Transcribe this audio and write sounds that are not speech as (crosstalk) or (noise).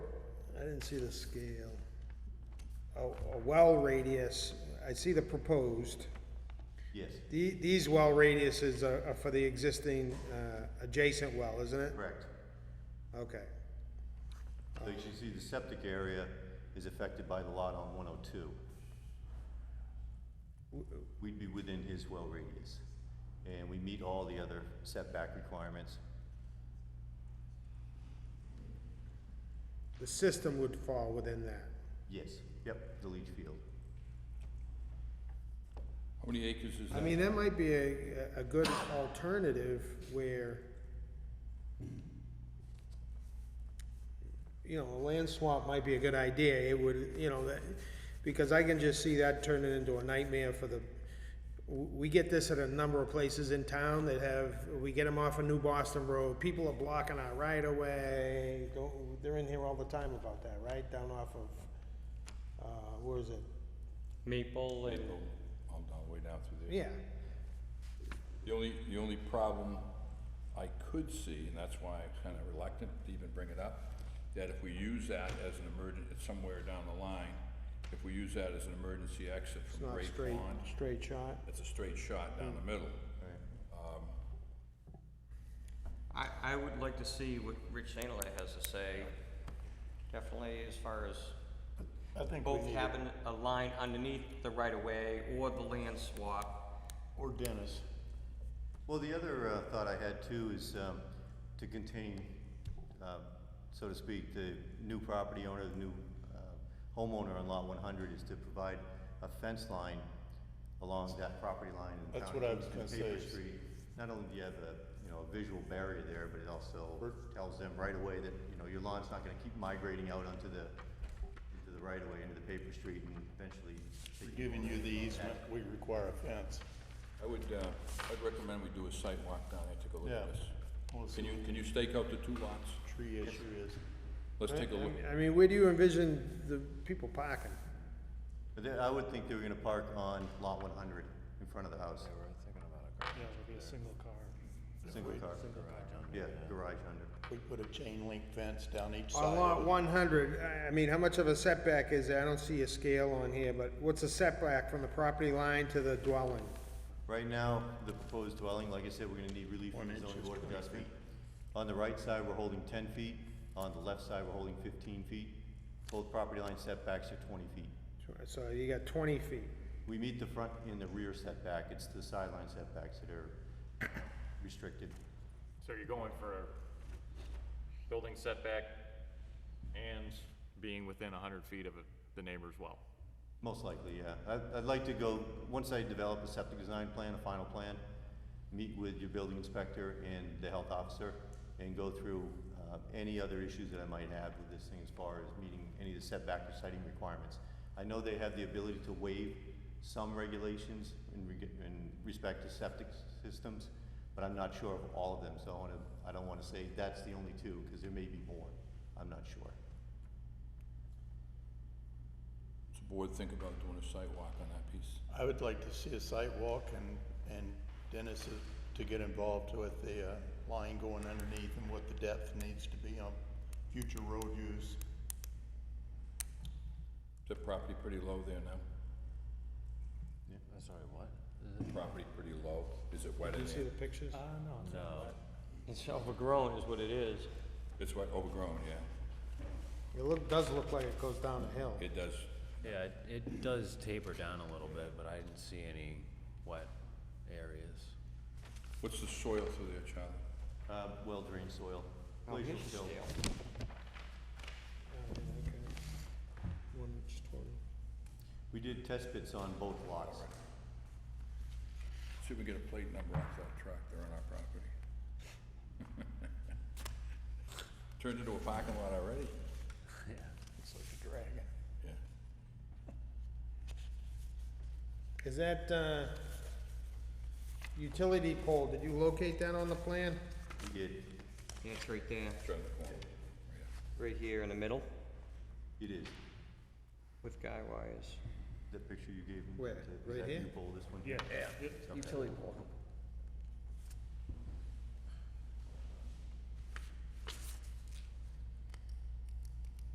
didn't see the scale. A, a well radius, I see the proposed. Yes, The, these well radiuses are, are for the existing, uh, adjacent well, isn't it? correct. Okay, So you should see the septic area is affected by the lot on one oh two. We'd be within his well radius, and we meet all the other setback requirements. the system would fall within that. Yes, yep, the leach field. How many acres is that? I mean, that might be a, a good alternative where, you know, a land swap might be a good idea, it would, you know, that, because I can just see that turning into a nightmare for the, w- we get this at a number of places in town that have, we get them off of New Boston Road, people are blocking our right of way, Don't- they're in here all the time about that, right, down off of, uh, where is it? Maple and, Maple, all down, way down through there. Yeah, The only, the only problem I could see, and that's why I'm kind of reluctant to even bring it up, that if we use that as an emergent, it's somewhere down the line, if we use that as an emergency exit it's from not Great straight, Pond, straight shot. it's a straight shot down the middle. I, I would like to see what Rich Sainalay has to say, definitely as far as I think we both need, having a line underneath the right-of-way or the land swap. or Dennis, Well, the other uh, thought I had too is um, to contain, uh, so to speak, the new property owner, the new uh, homeowner on lot one hundred is to provide a fence line along that property line in That's town what I was Kingston, gonna say Paper is- Street. Not only do you have a, you know, a visual barrier there, but it also Bert? tells them right away that, you know, your lawn's not gonna keep migrating out onto the, into the right of way, into the paper street and eventually. we're giving you the easement, we require a fence. I would, uh, I'd recommend we do a site walk down there, take a look at Yeah. this. We'll see Can you, can you stake out the two lots? what the tree issue is. Let's take a look. I mean, where do you envision the people parking? But they- I would think they were gonna park on lot one hundred in front of the house, Yeah, it'll be a single car. single car. Yeah, garage under. We put a chain link fence down each side. On lot of it. one hundred, I, I mean, how much of a setback is there? I don't see a scale on here, but what's the setback from the property line to the dwelling? Right now, the proposed dwelling, like I said, we're gonna need relief from the zoning board of adjustment. On the right side, we're holding ten feet, on the left side, we're holding fifteen feet. Both property line setbacks are twenty feet. So you got twenty feet. We meet the front and the rear setback, it's the sideline setbacks that are (coughs) restricted. So you're going for a building setback and being within hundred feet of the neighbor's well? Most likely, yeah. I'd, I'd like to go, once I develop a septic design plan, a final plan, meet with your building inspector and the health officer and go through, uh, any other issues that I might have with this thing as far as meeting any of the setback or citing requirements. I know they have the ability to waive some regulations in reg- in respect to septic systems, but I'm not sure of all of them, so I wanna, I don't wanna say that's the only two, cause there may be more. I'm not sure. Does the board think about doing a site walk on that piece? I would like to see a site walk and, and Dennis is, to get involved with the, uh, line going underneath and what the depth needs to be on future road use. Is the property pretty low there now? I'm sorry, what? Property pretty low, is it wet in You see there? the pictures? Uh-huh. No. It's overgrown is what it is. It's wet, overgrown, yeah, It look, does look like it goes down a hill. it does, Yeah, it- it does taper down a little bit, but I didn't see any wet areas. what's the soil through there, Charlie? Uh, well-drained soil, glacial till. One inch twenty. We did test pits on both lots. See if we get a plate number off that tractor on our property. (laughs) Turned into a parking lot (laughs) already. It's like a dragon. Yeah. Is that, uh, utility pole, did you locate that on the plan? We did, Yeah, it's right there, Turn the corner, yeah. right here in the middle it is, with guy wires. that picture you gave me. Where? is that- Right Is that here? you pull this one? Yeah. Okay. Utility pole.